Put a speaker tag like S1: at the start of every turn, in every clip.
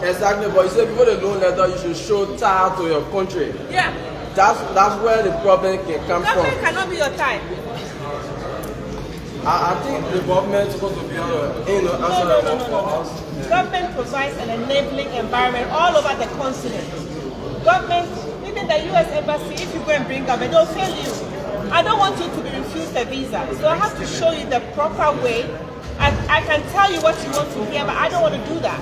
S1: Exactly, but you say before the loan letter, you should show tie to your country.
S2: Yeah.
S1: That's that's where the problem can come
S2: Government
S1: from.
S2: cannot be your time.
S1: I, I think the government is supposed to be on the you know,
S2: No,
S1: answer
S2: no,
S1: that
S2: no,
S1: one
S2: no,
S1: for
S2: no.
S1: us.
S2: Government provides an enabling environment all over the continent. Government, even the US Embassy, if you go and bring government, they'll fail you. I don't want you to be refused a visa, so I have to show you the proper way. I, I can tell you what you want to hear, but I don't want to do that.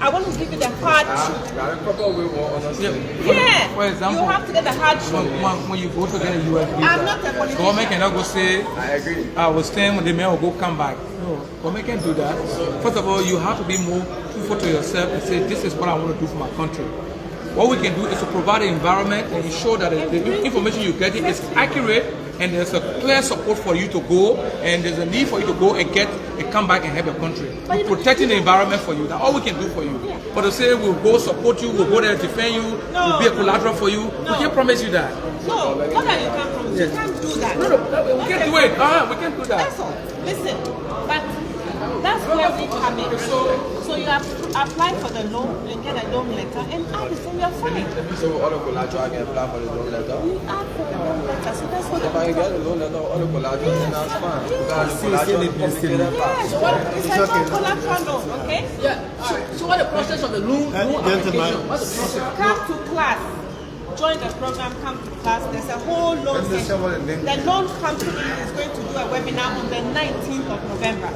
S2: I want to give you the hard truth.
S1: Ah, there are a couple of ways we want understand.
S2: Yeah,
S3: Uh, For example,
S2: you have to get the hard
S3: When,
S2: truth.
S3: when, when you go to get a US visa,
S2: I'm not a politician.
S3: government cannot go say, "Ah,
S1: I agree.
S3: I was staying with the man will go come back. No, government can't do that. First of all, you have to be more truthful to yourself and say, this is what I want to do for my country. What we can do is to provide an environment and ensure that the- the information you're getting is accurate and there's a clear support for you to go and there's a need for you to go and get and come back and help your country. We're protecting the environment for you. That's all we can do for you. But to say we'll go support you, we'll go there defend you, we'll be a collateral for you, we can't promise you that.
S2: No, not that you can't promise. You can't do that.
S3: No, no, we can't do it. Uh, we can't do that.
S2: That's all. Listen, but that's where we come in. So you have to apply for the loan and get a loan letter and add it and you're fine.
S1: So all the collateral I can apply for the loan letter.
S2: You add for the loan letter, so that's what
S1: If I
S2: I'm
S1: can get
S2: talking
S1: the loan letter, all the collateral, then that's fine.
S2: Yes.
S1: Because the collateral is complicated part.
S2: Yes, what, it's like one collateral loan, okay?
S4: Yeah. So, so what the process of the loan,
S5: Uh,
S4: loan
S5: gentlemen.
S4: application? What's the process?
S2: Come to class, join the program, come to class, there's a whole loan
S5: Let me
S2: session.
S5: say what the name
S2: The loan company is going to do a webinar on the 19th of November.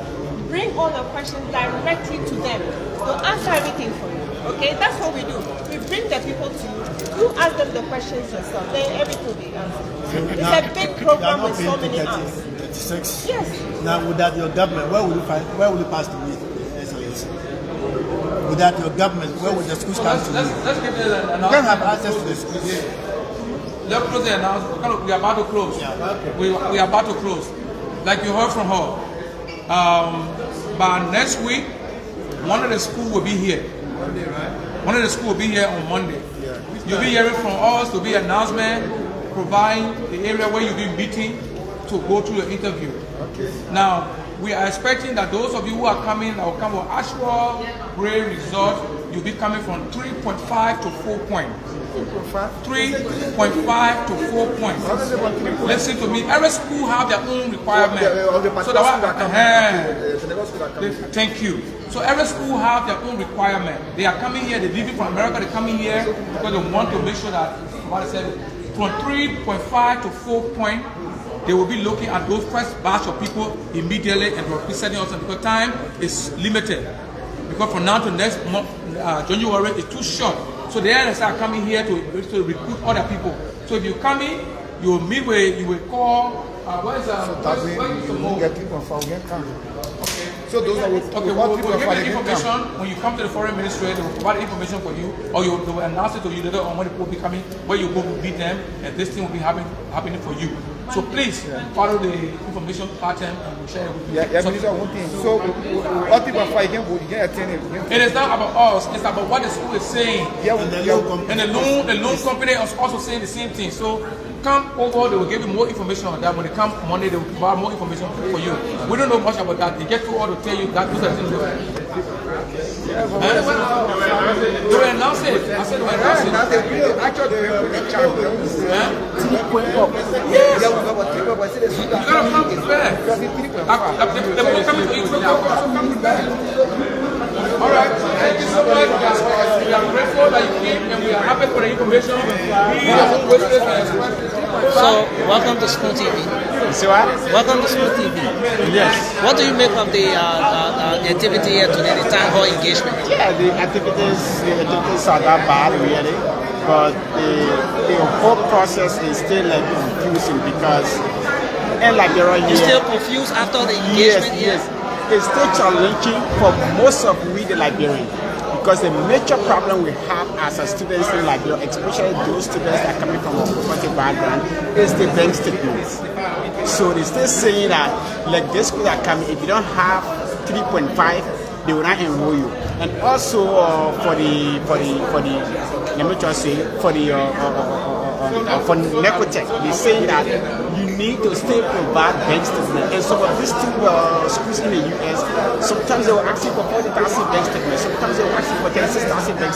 S2: Bring all the questions directly to them. They'll answer everything for you. Okay, that's what we do. We bring the people to you. You ask them the questions yourself. Then everything will be answered. It's a big program with so many arms.
S5: 36.
S2: Yes.
S5: Now, without your government, where will you find, where will you pass the meat? SLS. Without your government, where will the schools come
S3: Let's,
S5: to
S3: let's,
S5: meet?
S3: let's give you an
S5: You can't have
S3: announcement.
S5: access to the schools.
S3: Let's close the announcement. Kind of- We are about to close. We, we are about to close. Like you heard from her, um, by next week, one of the school will be here. One of the school will be here on Monday. You'll be hearing from us. There'll be announcement, providing the area where you'll be meeting to go to the interview. Now, we are expecting that those of you who are coming that will come from actual grade result, you'll be coming from 3.5 to 4 points. 3.5 to 4 points. Listen to me. Every school have their own requirement. So uh-huh. that one, they, thank you. So every school have their own requirement. They are coming here, they're leaving from America, they're coming here because they want to make sure that what I said, from 3.5 to 4 point, they will be looking at those first batch of people immediately and representing us because time is limited. Because from now to next month, uh, January is too short. So they are start coming here to, to recruit other people. So if you come in, you will meet with, you will call, uh, where's, uh, where's, where's Simone?
S6: So those are what
S3: Okay,
S6: what
S3: we'll,
S6: people
S3: we'll give
S6: are
S3: you the
S6: fighting.
S3: information when you come to the foreign ministry. They will provide information for you, or you, they will announce it to you later on when the people will be coming, where you go to meet them, and this thing will be happen, happening for you. So please follow the information pattern and we'll share it with you.
S6: Yeah, yeah,
S3: So-
S6: minister, one thing. So what people are fighting, you can attend it.
S3: it is not about us; it's about what the school is saying.
S6: Yeah,
S5: And the
S6: we- yeah,
S5: loan company.
S3: And the loan, the loan company is also saying the same thing. So come over, they will give you more information on that. When they come Monday, they will provide more information for you. We don't know much about that. They get to all to tell you that those are things. They will They will announce it. I said they will announce it.
S6: Ah, now they will actually they will put the child. They will say,
S3: Huh?
S6: "Three point up." Yeah, we got what three point up. I said, "Let's do that."
S3: You gotta come prepared.
S6: Because it's three point
S3: Like,
S6: five.
S3: like, the- the people coming to you, so come- come- come prepared. All right, thank you so much. We are- We are grateful that you came and we are happy for the information. We are always
S7: So, welcome to School TV.
S6: So what?
S7: Welcome to School TV. Yes. What do you make of the uh, uh, uh, activity here today, the town hall engagement?
S8: Yeah, the activities, the activities are not bad really, but the, the whole process is still like confusing because, and like you're
S7: You still
S8: here,
S7: confused after the
S8: yes,
S7: engagement here?
S8: yes, it's still challenging for most of we the Liberians because the major problem we have as a students in Liberia, especially those students that are coming from a poverty background, is the bank statements. So they still saying that like this school are coming, if you don't have 3.5, they will not enroll you. And also uh, for the for the for the let me just say for the uh, uh, uh, uh, uh, for Necotech, they're saying that you need to still provide bank statement. And some of these two uh, schools in the US, sometimes they will ask you for 40,000 bank statements, sometimes they will ask you for 36,000 bank